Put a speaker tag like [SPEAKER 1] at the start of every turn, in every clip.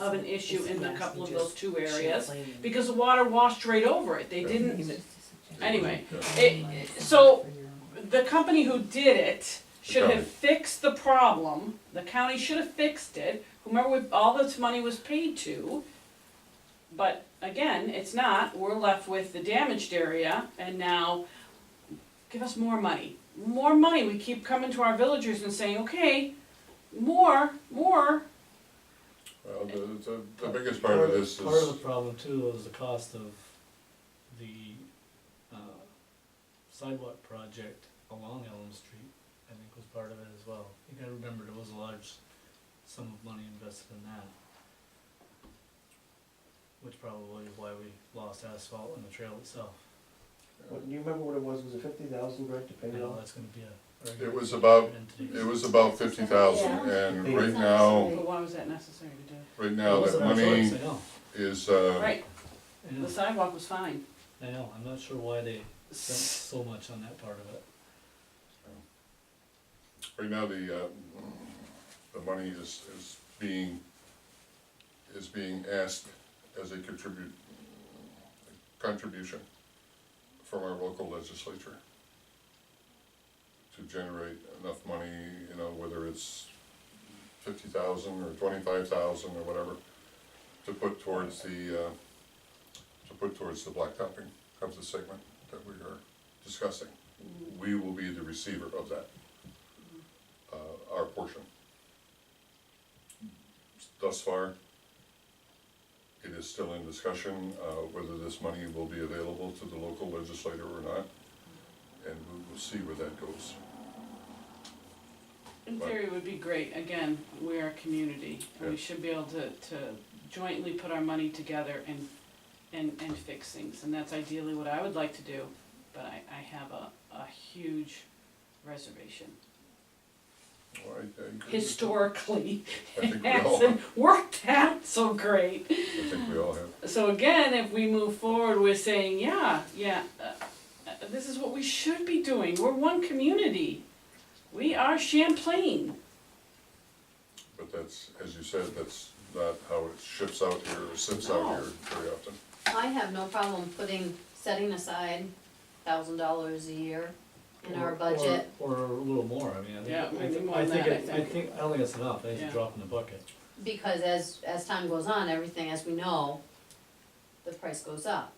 [SPEAKER 1] of an issue in a couple of those two areas,
[SPEAKER 2] because
[SPEAKER 1] because the water washed right over it, they
[SPEAKER 3] Right.
[SPEAKER 1] didn't, anyway,
[SPEAKER 3] Yeah.
[SPEAKER 1] it, it- so, the company who did it should
[SPEAKER 3] county.
[SPEAKER 1] have fixed the problem, the county should have fixed it, whomever, we- all this money was paid to. But again, it's not, we're left with the damaged area, and now, give us more money, more money, we keep coming to our villagers and saying, okay, more, more,
[SPEAKER 3] Well, the, the, the biggest part of this
[SPEAKER 4] Part of
[SPEAKER 3] is,
[SPEAKER 4] the problem too is the cost of the uh, sidewalk project along Elm Street, I think was part of it as well. You gotta remember, there was a large sum of money invested in that. Which probably is why we lost asphalt on the trail itself.
[SPEAKER 5] What, do you remember what it was, was it fifty thousand, Greg, to
[SPEAKER 4] I
[SPEAKER 5] pay it
[SPEAKER 4] know
[SPEAKER 5] off?
[SPEAKER 4] that's gonna be a.
[SPEAKER 3] it was about,
[SPEAKER 4] entity.
[SPEAKER 3] it was about fifty thousand, and right now,
[SPEAKER 1] but why was that necessary to do?
[SPEAKER 3] right now,
[SPEAKER 4] It wasn't
[SPEAKER 3] that
[SPEAKER 4] our
[SPEAKER 3] money
[SPEAKER 4] choice, I know,
[SPEAKER 3] is, uh,
[SPEAKER 1] Right,
[SPEAKER 4] I know,
[SPEAKER 1] the sidewalk was fine.
[SPEAKER 4] I know, I'm not sure why they spent so much on that part of it.
[SPEAKER 3] right now, the, uh, the money is, is being, is being asked as a contribute, contribution from our local legislature to generate enough money, you know, whether it's fifty thousand or twenty-five thousand or whatever, to put towards the, uh, to put towards the blacktopping of the segment that we are discussing. We will be the receiver of that, uh, our portion. Thus far, it is still in discussion, uh, whether this money will be available to the local legislator or not, and we will see where that goes.
[SPEAKER 1] In
[SPEAKER 3] Right.
[SPEAKER 1] theory, it would be great, again, we're a community, and we
[SPEAKER 3] Yeah.
[SPEAKER 1] should be able to, to jointly put our money together and, and, and fix things, and that's ideally what I would like to do, but I, I have a, a huge reservation.
[SPEAKER 3] Well, I- I agree with you.
[SPEAKER 1] Historically,
[SPEAKER 3] I think
[SPEAKER 1] it
[SPEAKER 3] we all,
[SPEAKER 1] hasn't worked out so great.
[SPEAKER 3] I think we all have.
[SPEAKER 1] So again, if we move forward with saying, yeah, yeah, uh, uh, this is what we should be doing, we're one community, we are Champlain.
[SPEAKER 3] But that's, as you said, that's not how it ships out here or sips out
[SPEAKER 1] No.
[SPEAKER 3] here very often.
[SPEAKER 6] I have no problem putting, setting aside thousand dollars a year in
[SPEAKER 4] Or-
[SPEAKER 6] our
[SPEAKER 4] or-
[SPEAKER 6] budget.
[SPEAKER 4] Or a little more, I mean, I
[SPEAKER 1] Yeah,
[SPEAKER 4] think, I
[SPEAKER 1] maybe
[SPEAKER 4] think,
[SPEAKER 1] more
[SPEAKER 4] I
[SPEAKER 1] than
[SPEAKER 4] think,
[SPEAKER 1] that, I
[SPEAKER 4] it- I
[SPEAKER 1] think.
[SPEAKER 4] think, I don't think it's enough, I think it's
[SPEAKER 1] Yeah.
[SPEAKER 4] a drop in the bucket.
[SPEAKER 6] Because as, as time goes on, everything, as we know, the price goes up.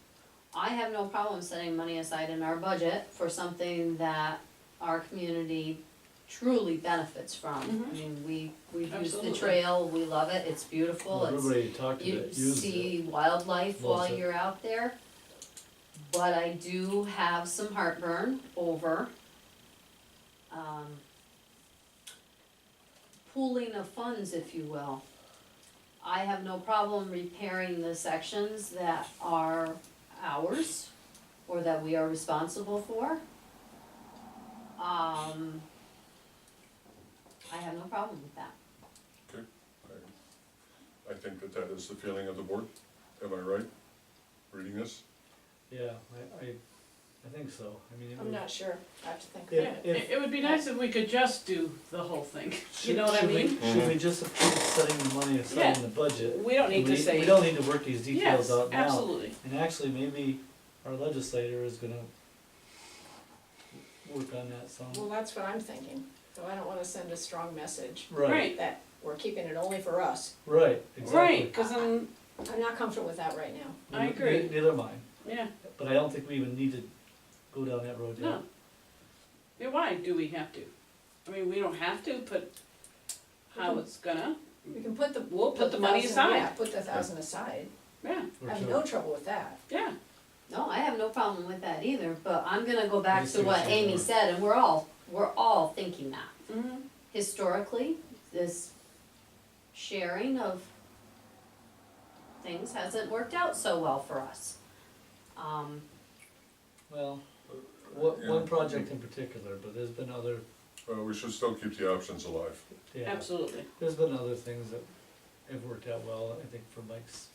[SPEAKER 6] I have no problem setting money aside in our budget for something that our community truly benefits from. I
[SPEAKER 4] Mm-hmm.
[SPEAKER 1] Mhm.
[SPEAKER 6] mean, we, we've used the
[SPEAKER 1] Absolutely.
[SPEAKER 6] trail, we love it, it's beautiful, it's,
[SPEAKER 4] Everybody talked to
[SPEAKER 6] you
[SPEAKER 4] it, used it,
[SPEAKER 6] see wildlife while
[SPEAKER 4] Loves it.
[SPEAKER 6] you're out there. But I do have some heartburn over, um, pooling of funds, if you will. I have no problem repairing the sections that are ours or that we are responsible for. Um, I have no problem with that.
[SPEAKER 3] I- I think that that is the feeling of the board. Am I right, reading this?
[SPEAKER 4] yeah, I, I, I think so, I mean, it
[SPEAKER 7] I'm
[SPEAKER 4] would,
[SPEAKER 7] not sure, I have to think.
[SPEAKER 4] Yeah,
[SPEAKER 1] Yeah,
[SPEAKER 4] if-
[SPEAKER 1] it, it would be nice if we could just do the whole thing, you
[SPEAKER 4] should,
[SPEAKER 1] know what I
[SPEAKER 4] should we,
[SPEAKER 1] mean?
[SPEAKER 4] should we just approve setting the money aside in the budget?
[SPEAKER 1] We don't need to say.
[SPEAKER 4] We don't need to work these details out now.
[SPEAKER 1] Yes, absolutely.
[SPEAKER 4] And actually, maybe our legislator is gonna work on that some,
[SPEAKER 7] Well, that's what I'm thinking, so I don't wanna send a strong message
[SPEAKER 4] right,
[SPEAKER 1] Right,
[SPEAKER 7] that we're keeping it only for us.
[SPEAKER 4] right, exactly.
[SPEAKER 1] right, cause then,
[SPEAKER 7] I'm not comfortable with that right now.
[SPEAKER 1] I
[SPEAKER 4] Ne-
[SPEAKER 1] agree.
[SPEAKER 4] ne- Neither am I,
[SPEAKER 1] yeah,
[SPEAKER 4] but I don't think we even need to go down that road yet.
[SPEAKER 1] no. Yeah, why do we have to? I mean, we don't have to, but how it's gonna,
[SPEAKER 7] We can put the.
[SPEAKER 1] We'll put the money
[SPEAKER 7] 1,000 Yeah,
[SPEAKER 1] aside.
[SPEAKER 7] put the thousand aside,
[SPEAKER 1] yeah,
[SPEAKER 4] For
[SPEAKER 7] I have
[SPEAKER 4] sure.
[SPEAKER 7] no trouble with that.
[SPEAKER 1] yeah,
[SPEAKER 6] No, I have no problem with that either, but I'm gonna go
[SPEAKER 4] Me
[SPEAKER 6] back to
[SPEAKER 4] too,
[SPEAKER 6] what
[SPEAKER 4] same
[SPEAKER 6] Amy
[SPEAKER 4] here.
[SPEAKER 6] said, and we're all, we're all thinking that.
[SPEAKER 1] mhm,
[SPEAKER 6] Historically, this sharing of things hasn't worked out so well for us. Um,
[SPEAKER 4] Well, one,
[SPEAKER 3] Yeah.
[SPEAKER 4] one project in particular, but there's been other,
[SPEAKER 3] Well, we should still keep the options alive.
[SPEAKER 4] yeah,
[SPEAKER 1] absolutely.
[SPEAKER 4] there's been other things that have worked out well, I think for Mike's.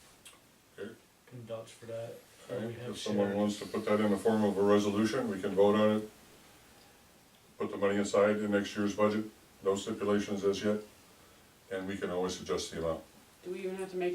[SPEAKER 3] Okay.
[SPEAKER 4] Can vouch for that, or we have
[SPEAKER 3] If someone
[SPEAKER 4] shared,
[SPEAKER 3] wants to put that in the form of a resolution, we can vote on it. Put the money aside in next year's budget, no stipulations as yet, and we can always adjust the amount.
[SPEAKER 1] Do we even have to make